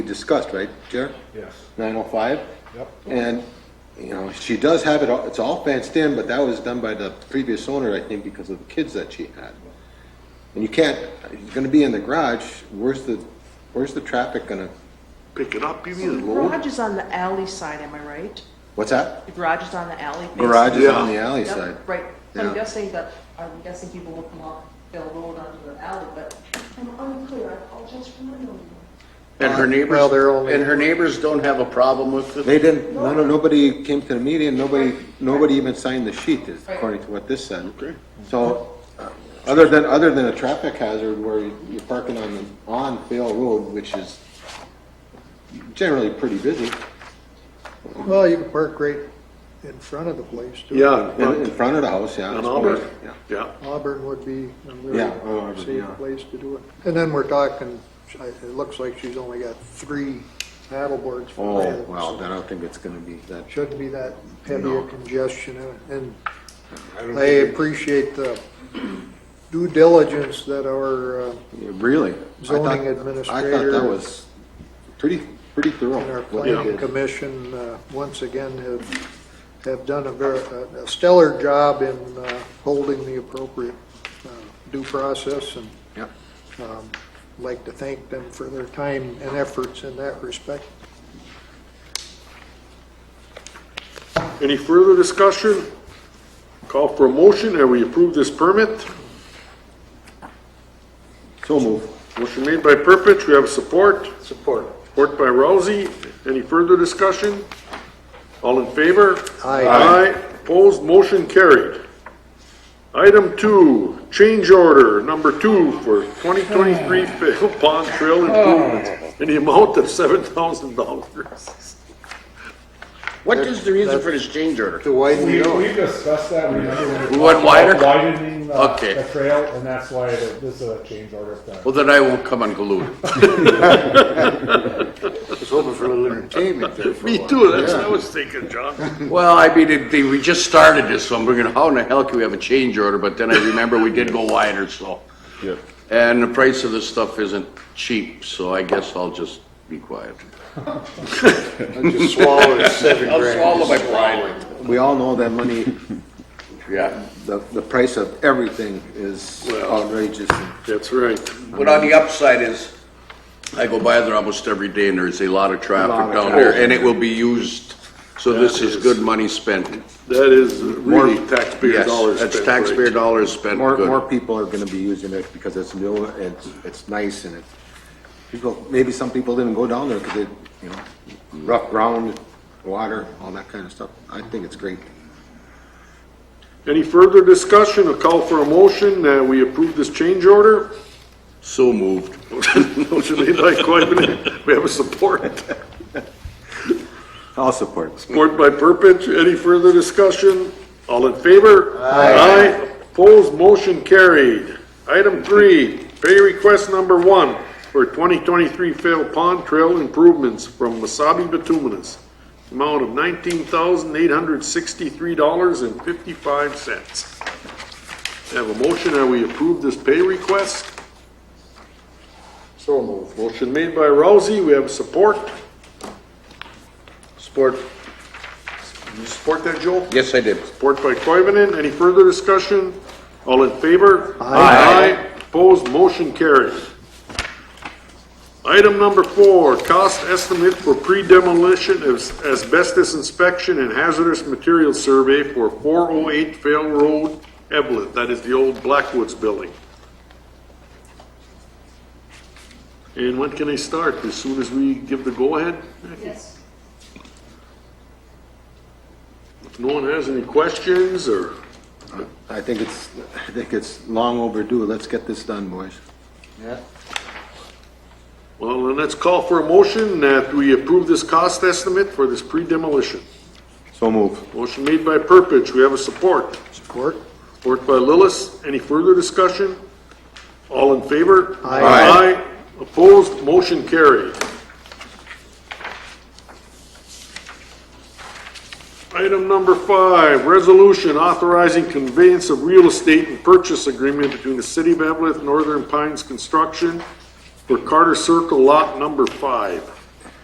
we discussed, right, Jer? Yes. Nine oh five? Yep. And, you know, she does have it, all it's all fenced in, but that was done by the previous owner, I think, because of the kids that she had. And you can't, it's gonna be in the garage, where's the, where's the traffic gonna, Pick it up, you mean? Garage is on the alley side, am I right? what's that? The garage is on the alley. face. Garage is on the Yeah. alley Yep, side. Right, So Yeah. I'm guessing that, I'm guessing people will come off Bell Road onto the alley, but I'm unclear, I apologize for my ignorance. And her Well, they're only- neighbors, and her neighbors don't have a problem with it? They didn't, no, no, nobody came to the meeting, nobody, nobody even signed the sheet, is according to what this said. Okay. So, uh, other than, other than a traffic hazard where you're parking on, the on Vale Road, which is generally pretty busy, Well, you can park right in front of the place, too. Yeah. uh, in, in front of the house, yeah. On it's Albert, perfect, yeah. yeah. Auburn would be a Yeah, oh, Auburn, really yeah. safe place to do it. And then we're talking, I- it looks like she's only got three paddleboards for Oh, that. wow, so then I don't think it's gonna be that, Shouldn't be that heavy No. a congestion, in it. and don't I appreciate the due diligence that our, uh, really. I Zoning thought- I thought that administrator- was pretty, pretty and our thorough. what they planning did. commission, uh, once again, have, have done a very, a stellar job in uh, holding the appropriate uh, due process, and Yep. um, like to thank them for their time and efforts in that respect. Any further discussion? Call for a motion that we approve this permit. So move. Motion made by Purpich, we have support. Support. Support by Rousey. Any further discussion? All in favor? Aye. Aye, opposed, motion carried. Item two, change order number two for 2023 Fayetteville Pond Trail improvements in the amount of $7,000. What is the reason for this change order? To widen We, we discussed that, remember when we We went talked about wider? widening the, Okay. the trail, and that's why the- this is a change order of that. Well, then I won't come unglued. was hoping for a little entertainment there for Me too, that's what I was thinking, John. Well, I mean, it- they- we just started this, so I'm thinking, how in the hell can we have a change order? But then I remember we did go wider, so. Yeah. And the price of this stuff isn't cheap, so I guess I'll just be quiet. Just swallowed seven I'll swallow my pride. We all know that money Yeah. the, the price of everything is Well- outrageous. That's right. But on the upside is, I go by there almost every day and there's a lot of Lot traffic of down traffic. there and it will be used. So this is is- good money spent. That is really More- taxpayer yes, dollars spent. That's taxpayer right? dollars spent More, more good. people are gonna be using it because it's new, it's, it's nice and it, people, maybe some people didn't go down there because it, you know, rough ground, water, all that kind of stuff. I think it's great. Any further discussion, a call for a motion that we approve this change order? So moved. Motion made by Coivinon, we have a support, I'll support. support by Purpich, any further discussion? All in favor? Aye. Opposed, motion carried. Item three, pay request number one for 2023 Fail Pond Trail improvements from Wasabi Bituminous, amount of $19,863.55. Have a motion, that we approve this pay request? So moved. Motion made by Rousey, we have support. Sport. You support that, Joel? Yes, I did. Support by Coivinon, any further discussion? All in favor? Aye. Opposed, motion carries. Item number four, cost estimate for pre-demolition as- asbestos inspection and hazardous material survey for 408 Vale Road, Evelyn, that is the old Blackwoods building. And when can they start? As soon as we give the go-ahead? Yes. If no one has any questions or? I think it's, I think it's long overdue. Let's get this done, boys. Well, then let's call for a motion that we approve this cost estimate for this pre-demolition. So move. Motion made by Purpich, we have a support. Support? Support by Lillis. Any further discussion? All in favor? Aye. Aye. Aye. Opposed, motion carried. Item number five, resolution authorizing conveyance of real estate and purchase agreement between the City of Evelyn Northern Pines Construction for Carter Circle Lot Number Five.